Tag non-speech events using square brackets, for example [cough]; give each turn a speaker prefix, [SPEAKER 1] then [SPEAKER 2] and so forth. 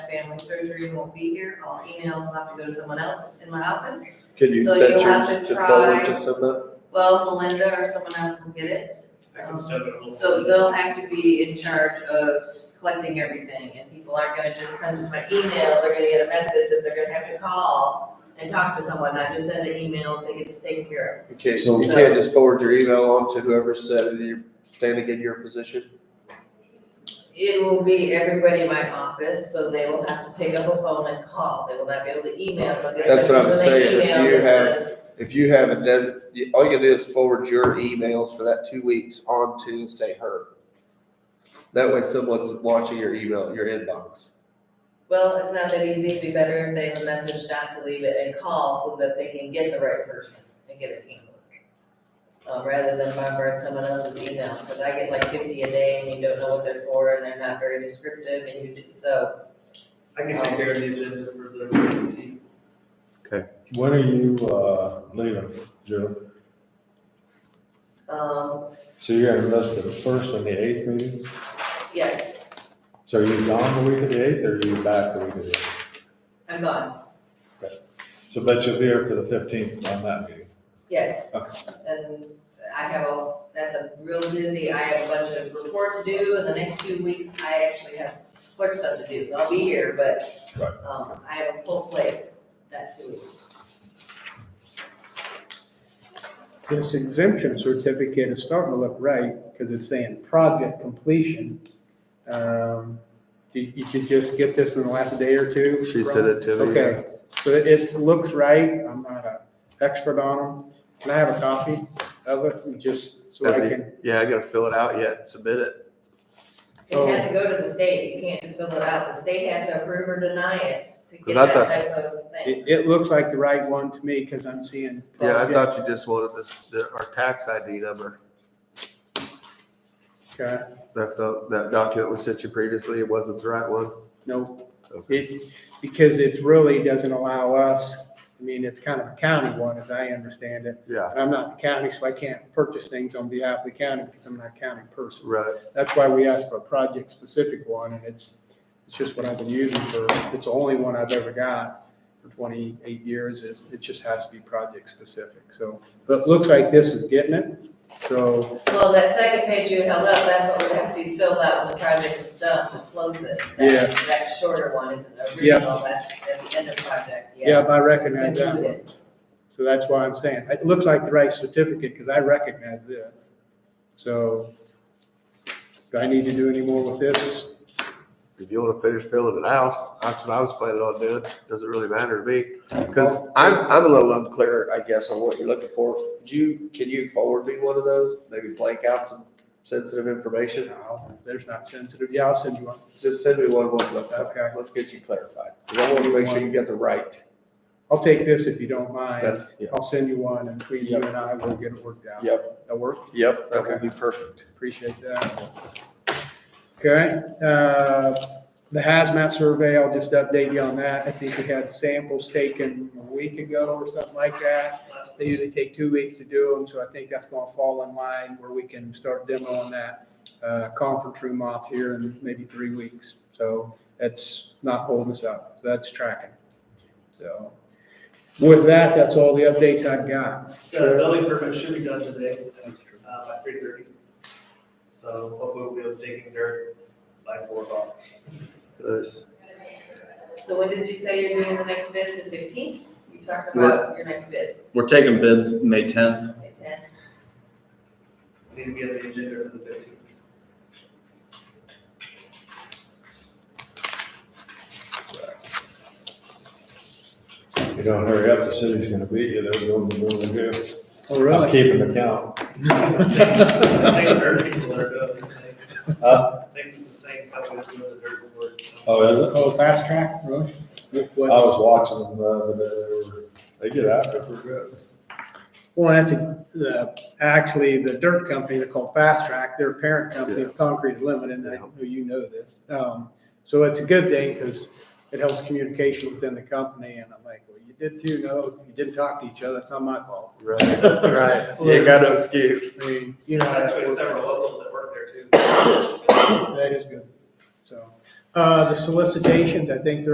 [SPEAKER 1] family surgery and won't be here, all emails will have to go to someone else in my office.
[SPEAKER 2] Can you
[SPEAKER 1] So
[SPEAKER 2] set
[SPEAKER 1] you'll have
[SPEAKER 2] yours
[SPEAKER 1] to
[SPEAKER 2] to forward
[SPEAKER 1] try-
[SPEAKER 2] to someone?
[SPEAKER 1] Well, Melinda or someone else will get it,
[SPEAKER 3] I can step it all.
[SPEAKER 1] so they'll have to be in charge of collecting everything, and people aren't gonna just send it by email, they're gonna get a message, and they're gonna have to call and talk to someone, not just send an email, they get taken care
[SPEAKER 2] You can't,
[SPEAKER 4] So-
[SPEAKER 2] you can't just forward your email on to whoever said that you're standing in your position?
[SPEAKER 1] of. It will be everybody in my office, so they will have to pick up a phone and call, they will not be able to email, they'll get a
[SPEAKER 2] That's what I'm
[SPEAKER 1] message when
[SPEAKER 2] saying,
[SPEAKER 1] they
[SPEAKER 2] if
[SPEAKER 1] email
[SPEAKER 2] you
[SPEAKER 1] that
[SPEAKER 2] have-
[SPEAKER 1] says,
[SPEAKER 2] If you have a des, you- all you do is forward your emails for that two weeks on to, say, her. That way someone's watching your email, your inbox.
[SPEAKER 1] Well, it's not that easy, it'd be better if they have a message not to leave it and call so that they can get the right person and get it handled. Um, rather than bombard someone else's email, cause I get like fifty a day and you don't know what they're for and they're not very descriptive and you do, so.
[SPEAKER 3] I can take care of the agenda for the emergency.
[SPEAKER 4] When are you, uh, leaving, Joe?
[SPEAKER 1] Um,
[SPEAKER 4] So you're gonna miss the first and the eighth meeting?
[SPEAKER 1] yes,
[SPEAKER 4] So are you gone the week of the eighth or are you back the week of the eighth?
[SPEAKER 1] I'm gone,
[SPEAKER 4] So bet you'll be here for the fifteenth on that meeting.
[SPEAKER 1] yes.
[SPEAKER 4] Okay.
[SPEAKER 1] And I have a, that's a real busy, I have a bunch of reports due in the next two weeks, I actually have clerk stuff to do, so I'll be here, but.
[SPEAKER 4] Right.
[SPEAKER 1] Um, I have a full plate that two weeks.
[SPEAKER 5] This exemption certificate is starting to look right because it's saying project completion. Um, You, you could just get this in the last day or two.
[SPEAKER 2] She sent it to me.
[SPEAKER 5] Okay, so it, it looks right. I'm not an expert on them. Can I have a copy of it and just so I
[SPEAKER 2] That'd be-
[SPEAKER 5] can?
[SPEAKER 2] Yeah, I gotta fill it out yet, and submit it.
[SPEAKER 1] It has to go to the state, you can't just fill it out, the state has to approve or deny it to get
[SPEAKER 2] 'Cause I
[SPEAKER 1] that
[SPEAKER 2] thought-
[SPEAKER 1] type of thing.
[SPEAKER 5] It, it looks like the right one to me because I'm seeing.
[SPEAKER 2] Yeah, I
[SPEAKER 5] project.
[SPEAKER 2] thought you just wanted this, the- our tax ID number.
[SPEAKER 5] Okay,
[SPEAKER 2] That's not, that document was sent you previously, it wasn't the right one.
[SPEAKER 5] no,
[SPEAKER 2] Okay.
[SPEAKER 5] it, because it really doesn't allow us, I mean, it's kind of a county one as I understand it.
[SPEAKER 2] Yeah,
[SPEAKER 5] And I'm not the county, so I can't purchase things on behalf of the county because I'm not a county person.
[SPEAKER 2] right.
[SPEAKER 5] That's why we asked for a project-specific one, and it's, it's just what I've been using for, it's the only one I've ever got for twenty-eight years, is, it just has to be project-specific, so. But it looks like this is getting it, so,
[SPEAKER 1] Well, that second page you held up, that's what would have to be filled out when the project is done, to close it. That-
[SPEAKER 5] Yeah.
[SPEAKER 1] That shorter one isn't
[SPEAKER 5] Yeah.
[SPEAKER 1] original, that's at the end of project, yeah.
[SPEAKER 5] yeah, I recognize that
[SPEAKER 1] Include
[SPEAKER 5] one.
[SPEAKER 1] it.
[SPEAKER 5] So that's why I'm saying, it looks like the right certificate, because I recognize this. So, do I need to do any more with this?
[SPEAKER 2] If you wanna finish filling it out, that's what I was planning on doing, doesn't really matter to me. Cause I'm, I'm a little unclear, I guess, on what you're looking for. Do you, can you forward me one of those? Maybe blank out some sensitive information?
[SPEAKER 5] No, there's not sensitive, yeah, I'll send you one.
[SPEAKER 2] Just send me one, what it looks like.
[SPEAKER 5] Okay.
[SPEAKER 2] Let's get you clarified. 'Cause I wanna make sure you got the right,
[SPEAKER 5] I'll take this if you don't mind.
[SPEAKER 2] that's, yeah.
[SPEAKER 5] I'll send you one and between you and I, we'll get it worked out.
[SPEAKER 2] Yep.
[SPEAKER 5] That work?
[SPEAKER 2] Yep, that will
[SPEAKER 5] Okay.
[SPEAKER 2] be perfect.
[SPEAKER 5] Appreciate that. Okay, uh, the hazmat survey, I'll just update you on that. I think we had samples taken a week ago or something like that. They usually take two weeks to do them, so I think that's gonna fall in line where we can start demoing that, uh, conference room off here in maybe three weeks. So that's not holding us up. So That's tracking. So with that, that's all the updates I've got.
[SPEAKER 3] The building permit should be done today, uh, by three thirty. So hopefully we'll be able to take it dirt by four o'clock.
[SPEAKER 2] Nice.
[SPEAKER 1] So when did you say you're doing the next bid, the fifteenth? You talked
[SPEAKER 6] We're-
[SPEAKER 1] about your next bid,
[SPEAKER 6] We're taking bids May tenth.
[SPEAKER 1] May tenth.
[SPEAKER 3] Need to be on the agenda for the fifteenth. [laughs]
[SPEAKER 4] If you don't hurry up, the city's gonna beat you. They're going to do what they do.
[SPEAKER 5] Oh,
[SPEAKER 4] [laughs]
[SPEAKER 5] [laughs]
[SPEAKER 4] I'm keeping the count.
[SPEAKER 3] It's the same dirt people that are doing it.
[SPEAKER 4] Uh,
[SPEAKER 3] I think it's the same company that's doing the dirt before.
[SPEAKER 4] Oh, is it?
[SPEAKER 5] Oh, fast track, really?
[SPEAKER 4] I was watching them, uh, the other day. they get after it pretty good.
[SPEAKER 5] Well, that's, a- the, actually, the dirt company, they're called Fast Track, their parent company of Concrete Limited, and I know you know this. Um, so it's a good thing, because it helps communication within the company, and I'm like, well, you did too, no, you didn't talk to each other, it's not my fault.
[SPEAKER 2] Right, [laughs] right. You got no excuse.
[SPEAKER 5] I mean, you know,
[SPEAKER 3] There's
[SPEAKER 5] how that
[SPEAKER 3] actually
[SPEAKER 5] works.
[SPEAKER 3] several locals that work there too.
[SPEAKER 5] that is good, so. Uh, the solicitations, I think they're